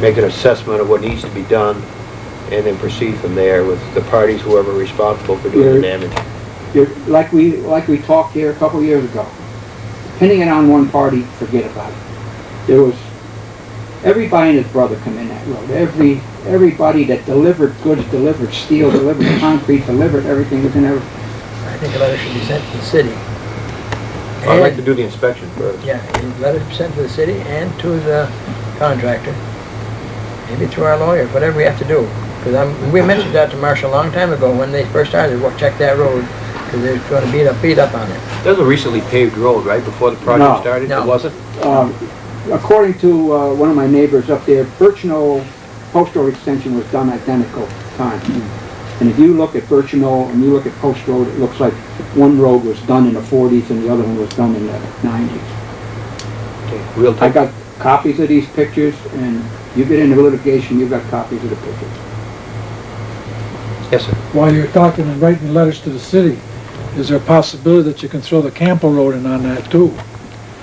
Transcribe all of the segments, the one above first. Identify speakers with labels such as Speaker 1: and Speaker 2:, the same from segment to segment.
Speaker 1: make an assessment of what needs to be done, and then proceed from there with the parties, whoever responsible for doing the
Speaker 2: Yeah.
Speaker 1: damage.
Speaker 2: You're, like we, like we talked here a couple of years ago, pinning it on one party, forget about it. There was, everybody and his brother come in that road, every, everybody that delivered goods, delivered steel, delivered concrete, delivered everything was in there.
Speaker 3: I think a letter should be sent to the city.
Speaker 1: I'd like
Speaker 3: And-
Speaker 1: to do the inspection first.
Speaker 3: Yeah, a letter sent to the city and to the contractor, maybe through our lawyer, whatever we have to do. Because I'm, we mentioned that to Marshall a long time ago when they first started, well, check that road, because they're going to beat up, beat up on it.
Speaker 1: That was a recently paved road, right, before the
Speaker 2: No.
Speaker 1: project started?
Speaker 3: No.
Speaker 1: It wasn't?
Speaker 2: Um, according to, uh, one of my neighbors up there, Birchnow Postal Extension was done identical time. And if you look at Birchnow and you look at Post Road, it looks like one road was done in the forties and the other one was done in the nineties.
Speaker 1: Real
Speaker 2: I
Speaker 1: time?
Speaker 2: got copies of these pictures, and you get into litigation, you've got copies of the pictures.
Speaker 1: Yes, sir.
Speaker 4: While you're talking and writing letters to the city, is there a possibility that you can throw the Campo Road in on that too?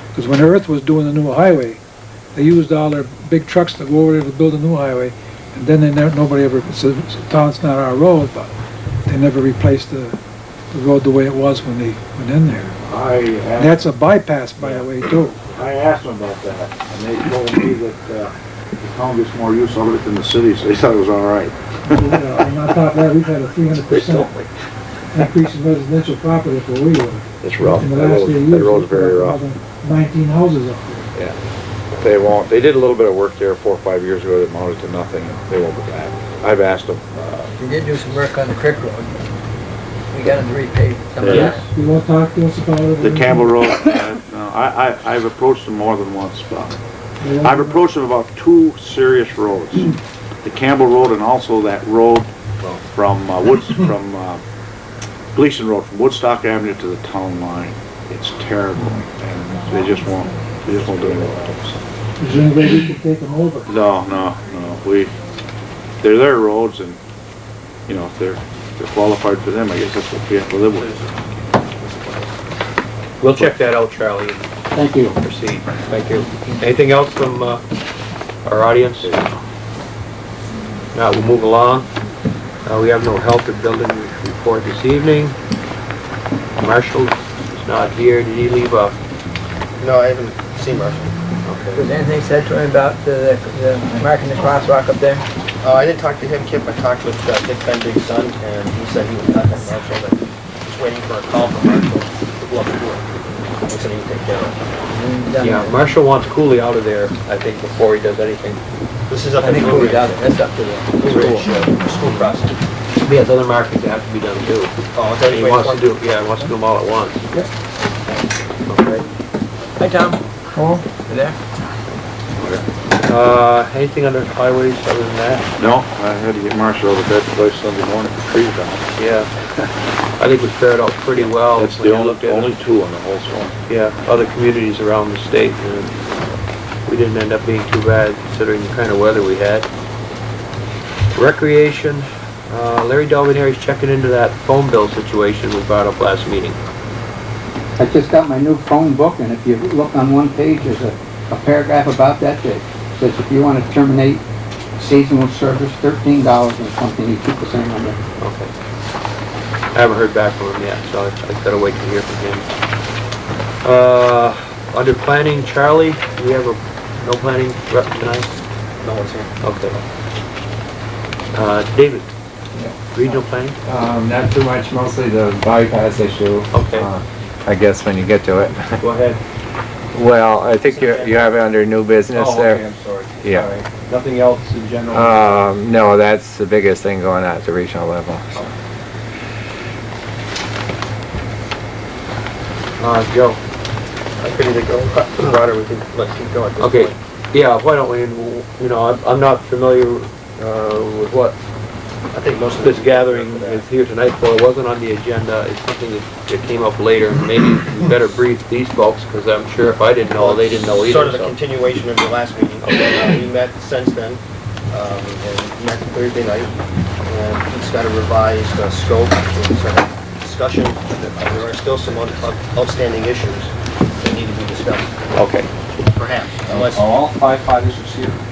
Speaker 4: Because when Earth was doing the new highway, they used all their big trucks to go over there to build a new highway, and then they never, nobody ever, said, town's not our road, but they never replaced the, the road the way it was when they went in there.
Speaker 5: I
Speaker 4: And
Speaker 5: asked,
Speaker 4: that's a bypass, by the way, too.
Speaker 5: I asked them about that, and they told me that, uh, the town gets more use of it than the city, so they thought it was all right.
Speaker 4: And on top of that, we've had a three hundred
Speaker 1: They told me.
Speaker 4: increase in residential property where we were.
Speaker 5: It's rough.
Speaker 4: In
Speaker 5: That
Speaker 4: the last
Speaker 5: road-
Speaker 4: few
Speaker 5: that
Speaker 4: years,
Speaker 5: road's very
Speaker 4: we've
Speaker 5: rough.
Speaker 4: got Nineteen houses up there.
Speaker 5: They won't, they did a little bit of work there four or five years ago that amounted to nothing, and they won't be back. I've asked them.
Speaker 3: We did do some work on the creek road. We got it repaved some of
Speaker 5: Yes.
Speaker 3: that.
Speaker 4: You won't talk to us about it?
Speaker 5: The Campbell Road, uh, no, I, I, I've approached them more than once, but
Speaker 4: You won't-
Speaker 5: I've approached them about two serious roads. The Campbell Road and also that road from uh, Woods, from uh, Gleason Road, from Woodstock Avenue to the town line. It's terrible, and they just won't, they just won't do anything about
Speaker 4: Is there any way we could take them over?
Speaker 5: it. No, no, no, we, they're their roads, and, you know, if they're, if they're qualified for them, I guess that's what we have to live with.
Speaker 1: We'll check that out, Charlie, and
Speaker 2: Thank you.
Speaker 1: proceed. Thank you. Anything else from uh, our audience? Now, we'll move along. Uh, We have no health or building report this evening. Marshall is not here. Did he leave a?
Speaker 6: No, I haven't seen Marshall.
Speaker 3: Was anything said to him about the, the marking the crosswalk up there?
Speaker 6: Uh, I didn't talk to him, Kip. I talked with uh, Dick Bendig's son, and he said he would contact Marshall, but just waiting for a call from Marshall to go up to work. He said he would take care of
Speaker 3: And, um,
Speaker 1: Yeah, Marshall wants Cooley out of there, I think, before he does anything.
Speaker 6: it. This is up
Speaker 3: I
Speaker 6: in
Speaker 3: think
Speaker 6: Blue
Speaker 3: we
Speaker 6: Ridge.
Speaker 3: got it, that's up to the
Speaker 6: Blue Ridge,
Speaker 3: school.
Speaker 6: uh, school crossing.
Speaker 1: He has other markings that have to be done too.
Speaker 6: Oh, is that
Speaker 1: He
Speaker 6: wait,
Speaker 1: wants
Speaker 6: one-
Speaker 1: to do, yeah, he wants to do them all at once. Okay.
Speaker 3: Hi, Tom. Hello. You there?
Speaker 1: Uh, Anything under highways other than that?
Speaker 5: No, I had to get Marshall out of bed twice Sunday morning, for trees down.
Speaker 1: Yeah, I think we fared out pretty well
Speaker 5: That's
Speaker 1: Oh, when
Speaker 5: the
Speaker 1: you looked at,
Speaker 5: only, only two on the whole zone.
Speaker 1: yeah, other communities around the state, and we didn't end up being too bad considering the kind of weather we had. Recreation, uh, Larry Dalvinary's checking into that phone bill situation we brought up last meeting.
Speaker 2: I just got my new phone book, and if you look on one page, there's a, a paragraph about that that says if you want to terminate seasonal service, thirteen dollars and something, you keep the same number.
Speaker 1: Okay. I haven't heard back from him yet, so I I gotta wait to hear from him. Uh, under planning, Charlie, we have a, no planning rep tonight?
Speaker 6: No one's here.
Speaker 1: Okay. Uh, David, regional planning?
Speaker 7: Um, not too much, mostly the bypass issue.
Speaker 1: Okay.
Speaker 7: uh, I guess when you get to it.
Speaker 1: Go ahead.
Speaker 7: Well, I think you, you have it under new business
Speaker 1: Oh, okay,
Speaker 7: there.
Speaker 1: I'm sorry. Sorry.
Speaker 7: Yeah.
Speaker 1: Nothing else in general?
Speaker 7: Um, no, that's the biggest thing going on at the regional level. so.
Speaker 1: Uh, Joe?
Speaker 6: I'm pretty to go. Uh, Roger, we can let's keep going. at this
Speaker 1: Okay,
Speaker 6: point.
Speaker 1: yeah, why don't we, you know, I'm, I'm not familiar, uh, with what
Speaker 6: I think most of
Speaker 1: this
Speaker 6: the-
Speaker 1: gathering is here tonight for. It wasn't on the agenda. It's something that that came up later. Maybe we better brief these folks, because I'm sure if I didn't know, they didn't know
Speaker 6: Sort of
Speaker 1: either,
Speaker 6: a
Speaker 1: so.
Speaker 6: continuation of your last meeting. Uh, We met since then, um, and met Thursday night, and he's got a revised uh, scope, and sort of discussion. There are still some un- outstanding issues that need to be discussed,
Speaker 1: Okay.
Speaker 6: perhaps, unless,
Speaker 8: Are all five fighters here?